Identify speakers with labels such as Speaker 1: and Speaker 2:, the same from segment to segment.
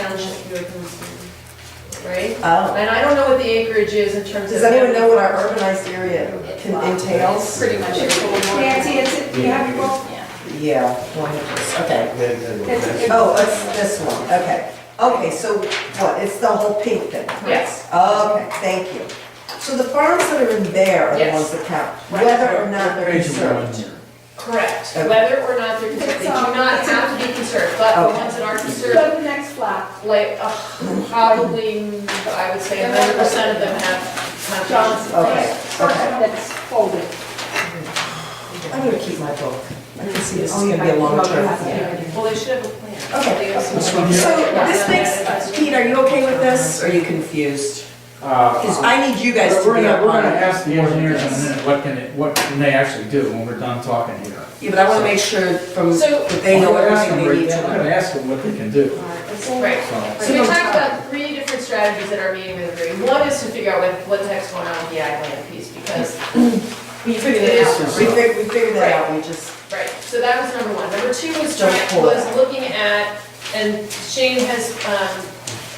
Speaker 1: township you're considering, right?
Speaker 2: Oh.
Speaker 1: And I don't know what the acreage is in terms of.
Speaker 2: Does anyone know what our urbanized area can-
Speaker 1: It's
Speaker 2: entails?
Speaker 1: Pretty much your whole north.
Speaker 3: Nancy, it's, you have your book?
Speaker 2: Yeah, one of those, okay.
Speaker 3: It's- it's-
Speaker 2: Oh, it's this one, okay. Okay, so what, it's the whole pink thing?
Speaker 1: Yes.
Speaker 2: Okay, thank you. So the farms that are in there are the
Speaker 1: Yes.
Speaker 2: ones that count,
Speaker 1: Right.
Speaker 2: whether or not they're conserved.
Speaker 1: Correct,
Speaker 2: Okay.
Speaker 1: whether or not they're conserved, they do
Speaker 3: It's, um,
Speaker 1: not
Speaker 3: it's a-
Speaker 1: have to be conserved, but the
Speaker 2: Okay.
Speaker 1: ones that are
Speaker 3: Go
Speaker 1: conserved,
Speaker 3: to the next flap.
Speaker 1: like, uh, probably, I would say hundred percent of them have
Speaker 3: John's,
Speaker 1: conservation.
Speaker 2: Okay,
Speaker 3: first one
Speaker 2: okay.
Speaker 3: that's folded.
Speaker 2: I'm gonna keep my book. I can see this is gonna be a long term.
Speaker 1: Well, they should have a plan.
Speaker 2: Okay.
Speaker 1: They have some-
Speaker 4: This one here?
Speaker 2: So this makes, Pete, are you okay with this? Or Are you confused? Because
Speaker 4: Uh,
Speaker 2: I need you guys to
Speaker 4: We're
Speaker 2: be
Speaker 4: gonna,
Speaker 2: up
Speaker 4: we're gonna
Speaker 2: on it.
Speaker 4: ask the engineers in a minute, what can, it- what can they actually do when we're done talking here?
Speaker 2: Yeah, but I want to make sure from,
Speaker 1: So-
Speaker 2: that they know
Speaker 4: I'm gonna ask
Speaker 2: everything
Speaker 4: them,
Speaker 2: they need
Speaker 4: Rick,
Speaker 2: to
Speaker 4: I'm
Speaker 2: know.
Speaker 4: gonna ask them what they can do,
Speaker 1: Right.
Speaker 4: so.
Speaker 1: So we talked about three different strategies at our meeting with Agree. One is to figure out what, what the heck's going on with the ag land piece, because,
Speaker 2: We figured
Speaker 1: it
Speaker 2: it
Speaker 1: out.
Speaker 2: out. We figured, we figured that out, we just,
Speaker 1: right, so that was number one. Number two was,
Speaker 2: Don't
Speaker 1: trying-
Speaker 2: pull
Speaker 1: was
Speaker 2: that.
Speaker 1: looking at, and Shane has, um,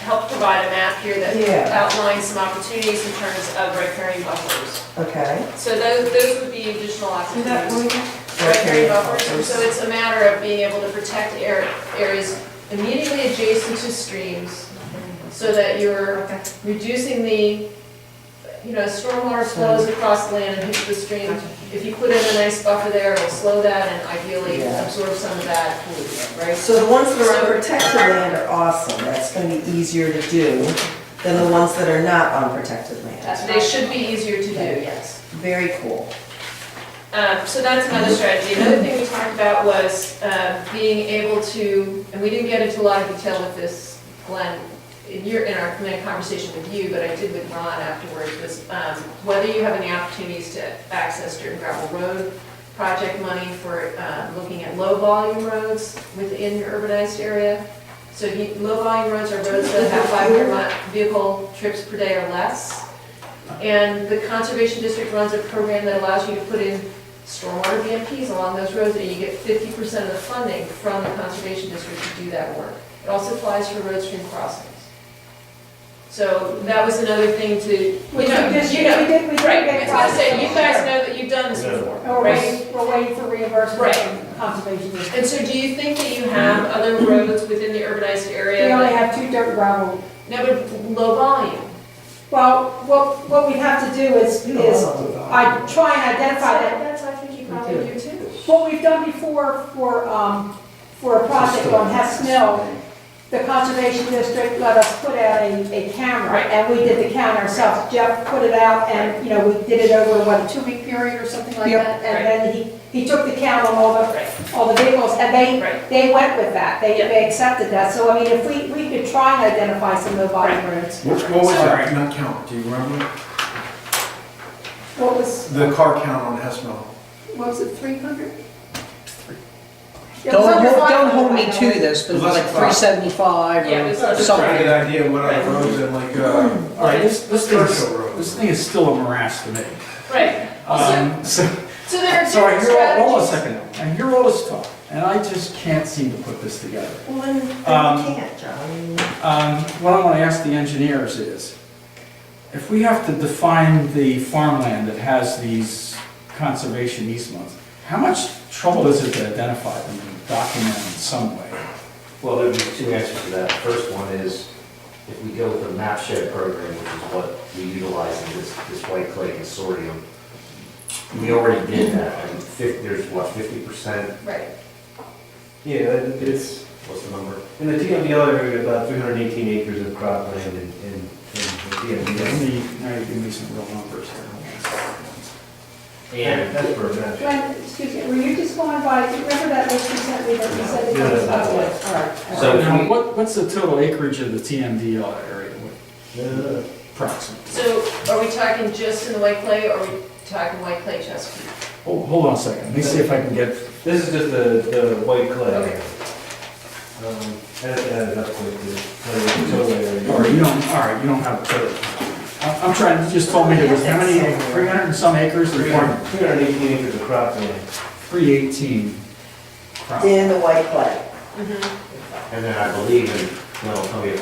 Speaker 1: helped provide a map here that
Speaker 2: Yeah.
Speaker 1: outlines some opportunities in terms of riparian buffers.
Speaker 2: okay.
Speaker 1: So those, those would be additional opportunities.
Speaker 2: Okay.
Speaker 1: Riparian buffers, so it's a matter of being able to protect air- areas immediately adjacent to streams, so that you're reducing the, you know, stormwater flows across the land and hits the stream. If you put in a nice buffer there, it'll slow that and ideally
Speaker 2: Yeah.
Speaker 1: absorb some of that pollution, right?
Speaker 2: So the ones that are on protected land are awesome, that's gonna be easier to do than the ones that are not on protected land.
Speaker 1: Uh, They should be easier to do, yes.
Speaker 2: Very cool.
Speaker 1: Um, So that's another strategy. Another thing we talked about was uh, being able to, and we didn't get into a lot of detail with this, Glenn, in your, in our committee conversation with you, but I did with Ron afterwards, was um, whether you have any opportunities to access dirt and gravel road project money for uh, looking at low-volume roads within your urbanized area. So you- low-volume roads are roads that have 500 mi- vehicle trips per day or less. And the Conservation District runs a program that allows you to put in stormwater BMPs along those roads, and you get fifty percent of the funding from the Conservation District to do that work. It also applies for road stream crossings. So that was another thing to,
Speaker 3: We
Speaker 1: you know,
Speaker 3: did, we did,
Speaker 1: you
Speaker 3: we
Speaker 1: know,
Speaker 3: did get.
Speaker 1: right, I was gonna say, you guys
Speaker 3: Sure.
Speaker 1: know that you've done this before,
Speaker 3: We're
Speaker 1: Oh, right?
Speaker 3: waiting, we're waiting for reimbursement
Speaker 1: Right.
Speaker 3: from conservation. district.
Speaker 1: And so do you think that you have other roads within the urbanized
Speaker 3: We
Speaker 1: area?
Speaker 3: only
Speaker 1: that-
Speaker 3: have two dirt gravel.
Speaker 1: No, but low volume.
Speaker 3: Well, what, what we have to do is, is I try and identify that.
Speaker 1: That's, I think you probably do too.
Speaker 3: What we've done before for, um, for a project on Hess Mill, the conservation district let us put out a, a camera,
Speaker 1: Right.
Speaker 3: and we did the count ourselves. Jeff put it out, and, you know, we did it over, what, a two-week period or something like
Speaker 2: Yep.
Speaker 3: that? And then he, he took the count on all the,
Speaker 1: Right,
Speaker 3: all the vehicles, and they,
Speaker 1: right.
Speaker 3: they went with that, they,
Speaker 1: Yeah.
Speaker 3: they accepted that. So, I mean, if we, we could try and identify some of the body roads.
Speaker 5: Which, what was that nut count, do you remember?
Speaker 3: What was,
Speaker 5: The car count on Hessmont?
Speaker 3: what was it, three hundred?
Speaker 6: Don't, hold- don't hold me to this, but it was like
Speaker 5: Unless it's
Speaker 6: three seventy-five
Speaker 1: Yeah, it
Speaker 6: or
Speaker 1: was-
Speaker 5: Just trying to
Speaker 6: something.
Speaker 5: get an idea of what other roads and like, uh,
Speaker 4: All right, this, this thing,
Speaker 5: Churchill
Speaker 4: is-
Speaker 5: Road.
Speaker 4: this thing is still a morass to me.
Speaker 1: Right. Also,
Speaker 4: Um, so,
Speaker 1: so there are
Speaker 4: so I
Speaker 1: different
Speaker 4: hear all, hold on a
Speaker 1: strategies.
Speaker 4: second, I hear all this talk, and I just can't seem to put this together.
Speaker 2: Well, then, then you
Speaker 4: Um,
Speaker 2: can't, John.
Speaker 4: Um, What I want to ask the engineers is, if we have to define the farmland that has these conservation easements, how much trouble is it to identify them and document them in some way?
Speaker 7: Well, there'd be two answers to that. First one is, if we go with the map shed program, which is what we utilize in this, this White Clay Consortium, we already did that, and fif, there's what, fifty percent?
Speaker 1: Right.
Speaker 8: Yeah, it- it's,
Speaker 7: What's the number?
Speaker 8: in the TMDL area, about 318 acres of cropland in, in in the
Speaker 4: Let
Speaker 8: TMDL.
Speaker 4: me, now you give me some real numbers here.
Speaker 7: And
Speaker 8: That's for a match.
Speaker 3: Glenn, excuse me, were you just going by, do you remember that list you sent me that you said it
Speaker 8: No, no,
Speaker 3: was
Speaker 8: no, no.
Speaker 3: about what? All right. all
Speaker 7: So-
Speaker 3: right.
Speaker 4: Now, what, what's the total acreage of the TMDL area,
Speaker 8: Uh,
Speaker 4: approximately?
Speaker 1: So are we talking just in the White Clay, or are we talking White Clay Chesapeake?
Speaker 4: Hold, hold on a second, let me see if I can get,
Speaker 8: This is just the, the white clay.
Speaker 1: Okay.
Speaker 8: Um, That that is up to the total area.
Speaker 4: all right, you don't, all right, you don't have a total. I'm- I'm trying, you just told me there was how many, three hundred and some acres of farm?
Speaker 8: 318 acres of cropland.
Speaker 4: 318 crop.
Speaker 2: In the white clay.
Speaker 7: then I believe, in well, tell me if